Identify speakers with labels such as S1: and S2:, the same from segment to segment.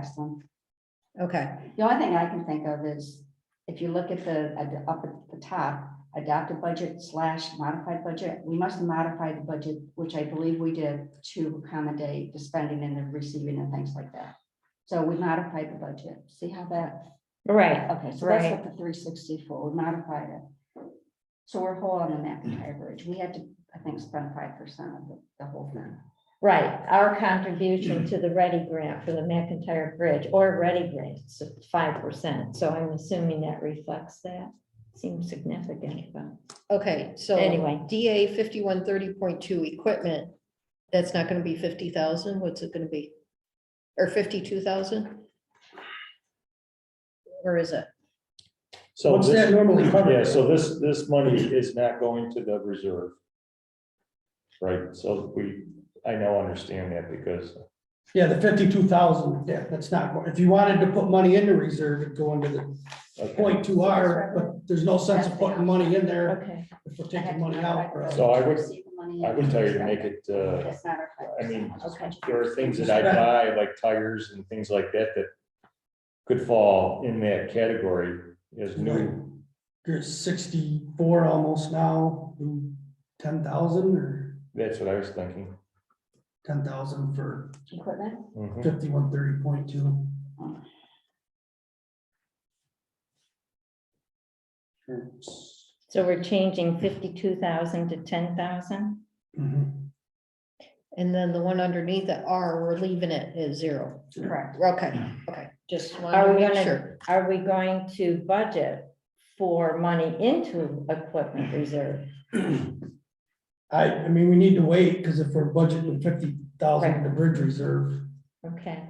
S1: excellent.
S2: Okay,
S1: The only thing I can think of is, if you look at the, at the- up at the top, adopted budget slash modified budget, we must modify the budget, which I believe we did to accommodate the spending and the receiving and things like that. So we modified the budget. See how that,
S3: Right,
S1: okay, so that's
S3: Right.
S1: what the three sixty-four, we modified it. So we're whole on the McIntyre Bridge. We had to, I think, spend five percent of the, the whole thing.
S3: right. Our contribution to the Ready Grant for the McIntyre Bridge or Ready Grant, it's five percent. So I'm assuming that reflects that. Seems significant, but
S2: okay, so.
S3: Anyway.
S2: DA fifty-one thirty point two equipment, that's not gonna be fifty thousand, what's it gonna be? Or fifty-two thousand? Or is it?
S4: So
S5: What's that
S4: this,
S5: normally cover?
S4: yeah, so this, this money is not going to the reserve. Right, so we, I now understand that because,
S5: Yeah, the fifty-two thousand, yeah, that's not, go- if you wanted to put money into reserve, it'd go into the
S4: okay,
S5: point two R, but there's no sense of putting money in there
S3: okay.
S5: if we're taking money out. or-
S4: So I would-
S1: Receive the money
S4: I would tell you to
S1: and-
S4: make it, uh,
S1: It's not our five
S4: I mean,
S1: percent.
S3: Okay.
S4: there are things that I buy, like tires and things like that, that could fall in that category as new.
S5: There's sixty-four almost now, ten thousand or
S4: That's what I was thinking.
S5: ten thousand for
S1: Equipment?
S4: Mhm.
S5: fifty-one thirty point two.
S4: Hmm.
S3: So we're changing fifty-two thousand to ten thousand?
S5: Mm-hmm.
S2: And then the one underneath the R, we're leaving it at zero.
S1: Correct.
S2: Okay, okay, just
S3: Are
S2: wanted to
S3: we
S2: make
S3: gonna-
S2: sure.
S3: Are we going to budget for money into equipment reserve?
S5: I, I mean, we need to wait, because if we're budgeting fifty thousand to bridge reserve,
S3: Okay.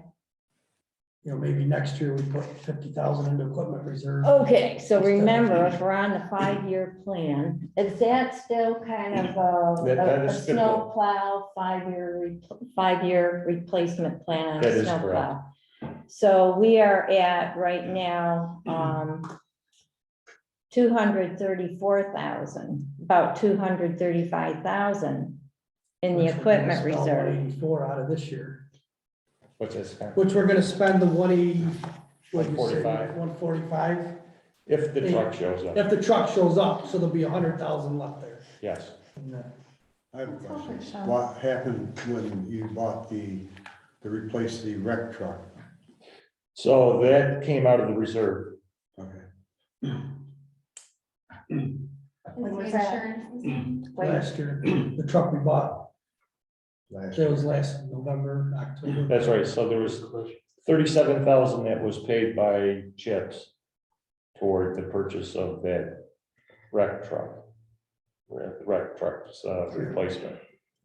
S5: you know, maybe next year we put fifty thousand into equipment reserve.
S1: Oh,
S3: Okay, so remember, if we're on the five-year plan, is that still kind of a,
S4: That- that
S3: a- a
S4: is fickle.
S3: snowplow, five-year, re- five-year replacement plan on
S4: That
S3: a
S4: is
S3: snowplow? So we are at right now, um, two hundred thirty-four thousand, about two hundred thirty-five thousand in the
S5: Which we're gonna
S3: equipment
S5: spell
S3: reserve.
S5: 184 out of this year,
S4: What's this? kind of-
S5: which we're gonna spend the one eighty.
S4: $145.
S5: One forty-five,
S4: If the truck shows up,
S5: if the truck shows up, so there'll be a hundred thousand left there.
S4: yes.
S5: And, uh,
S6: I have a question.
S3: That's all for
S6: What happened when you bought the, to replace the wreck truck?
S4: So that came out of the reserve.
S6: Okay.
S1: When was that?
S4: Mm-hmm.
S1: Wait,
S5: Last year, the truck we bought,
S6: last
S5: that was last November, October.
S4: That's right, so there was thirty-seven thousand that was paid by chips toward the purchase of that wreck truck. Wreck wreck truck's uh, replacement,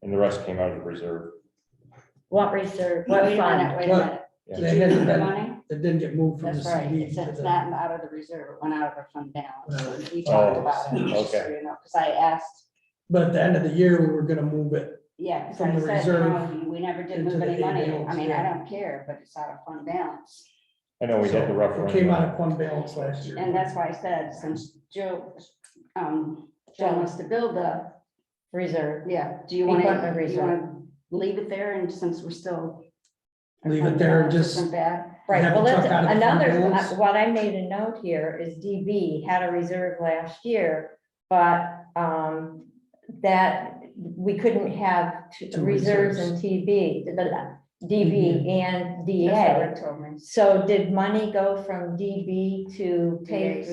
S4: and the rest came out of the reserve.
S3: What reserve,
S1: Wait a
S3: what
S1: minute,
S3: fund?
S1: wait a minute.
S4: Yeah.
S5: They
S1: Did you
S5: had
S1: lose the
S5: that-
S1: money?
S5: It didn't get moved from the
S1: That's right.
S5: CD.
S1: It's
S5: to
S1: it's
S5: the-
S1: not out of the reserve, it went out of our fund balance. We talked
S4: Oh,
S1: about it. just so
S4: okay.
S1: you know, Cause I asked,
S5: But at the end of the year, we were gonna move it.
S1: yeah, cause
S5: From
S1: I
S5: the
S1: said,
S5: reserve
S1: no, we never did
S5: into
S1: move
S5: the
S1: any
S5: A
S1: money. I
S5: balance,
S1: mean, I
S5: yeah.
S1: don't care, but it's out of fund balance.
S4: I know we had the
S5: So
S4: referendum.
S5: It came out of fund balance last year.
S1: And that's why I said, since Joe, um, Joe wants to build the,
S3: Reserve.
S1: yeah, do you
S3: Equipment
S1: wanna, do you
S3: reserve.
S1: wanna leave it there and since we're still.
S5: Leave it there and just-
S1: Isn't bad.
S3: Right,
S5: have
S3: well,
S5: the truck
S3: that's
S5: out of the
S3: another,
S5: fund
S3: uh,
S5: balance.
S3: what I made a note here is DB had a reserve last year, but um, that we couldn't have t-
S5: Two
S3: reserves in TB, the- the DB and DA.
S1: That's what Rick told me.
S3: So did money go from DB to take
S1: DAs.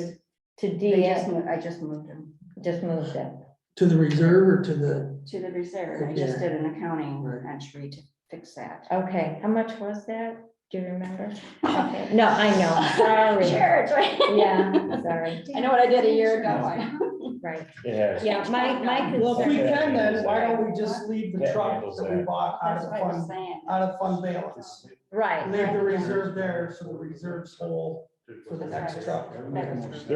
S3: to
S1: They just
S3: DA?
S1: mo- I just moved them
S3: Just moved it.
S5: To the reserve or to the,
S1: to the reserve. I just
S5: Yeah.
S1: did an accounting
S5: Right.
S1: entry to fix that.
S3: Okay, how much was that? Do you remember? Okay, No, I know, sorry.
S1: Sure, it's right.
S3: Yeah, sorry,
S1: I know what I did a year ago.
S3: right.
S4: It has.
S3: Yeah, my, my
S5: well, if
S3: concern.
S5: we can then, why don't we just leave the
S4: That
S5: truck
S4: handles
S5: that we
S4: that.
S5: bought out
S1: That's
S5: of
S1: what I was
S5: fund,
S1: saying.
S5: out of fund balance?
S3: Right.
S5: Leave the reserve there, so the reserves whole for the next truck.
S4: There
S5: That's
S4: was,
S5: what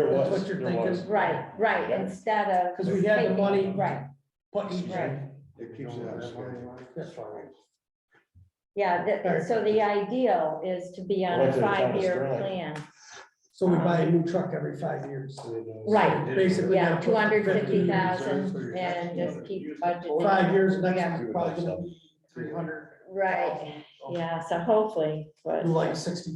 S5: you're
S4: there was.
S5: thinking.
S3: Right, right, instead of.
S5: Because we had the
S3: taking-
S5: money.
S3: Right,
S5: But you-
S3: right,
S6: It keeps it on schedule.
S3: yeah, that, so the ideal is to be on
S4: Well,
S3: a
S4: that's what Thomas
S3: five-year
S4: Sterling-
S3: plan,
S5: So we buy a new truck every five years.
S3: Right.
S5: Basically.
S3: yeah,
S5: gotta put
S3: two hundred fifty
S6: 50,000
S3: thousand,
S6: reserves.
S3: and just keep budgeting.
S5: Five years, next
S3: Yeah.
S5: one's probably gonna be three hundred.
S3: Right,
S7: yeah, so hopefully, but.
S3: like sixty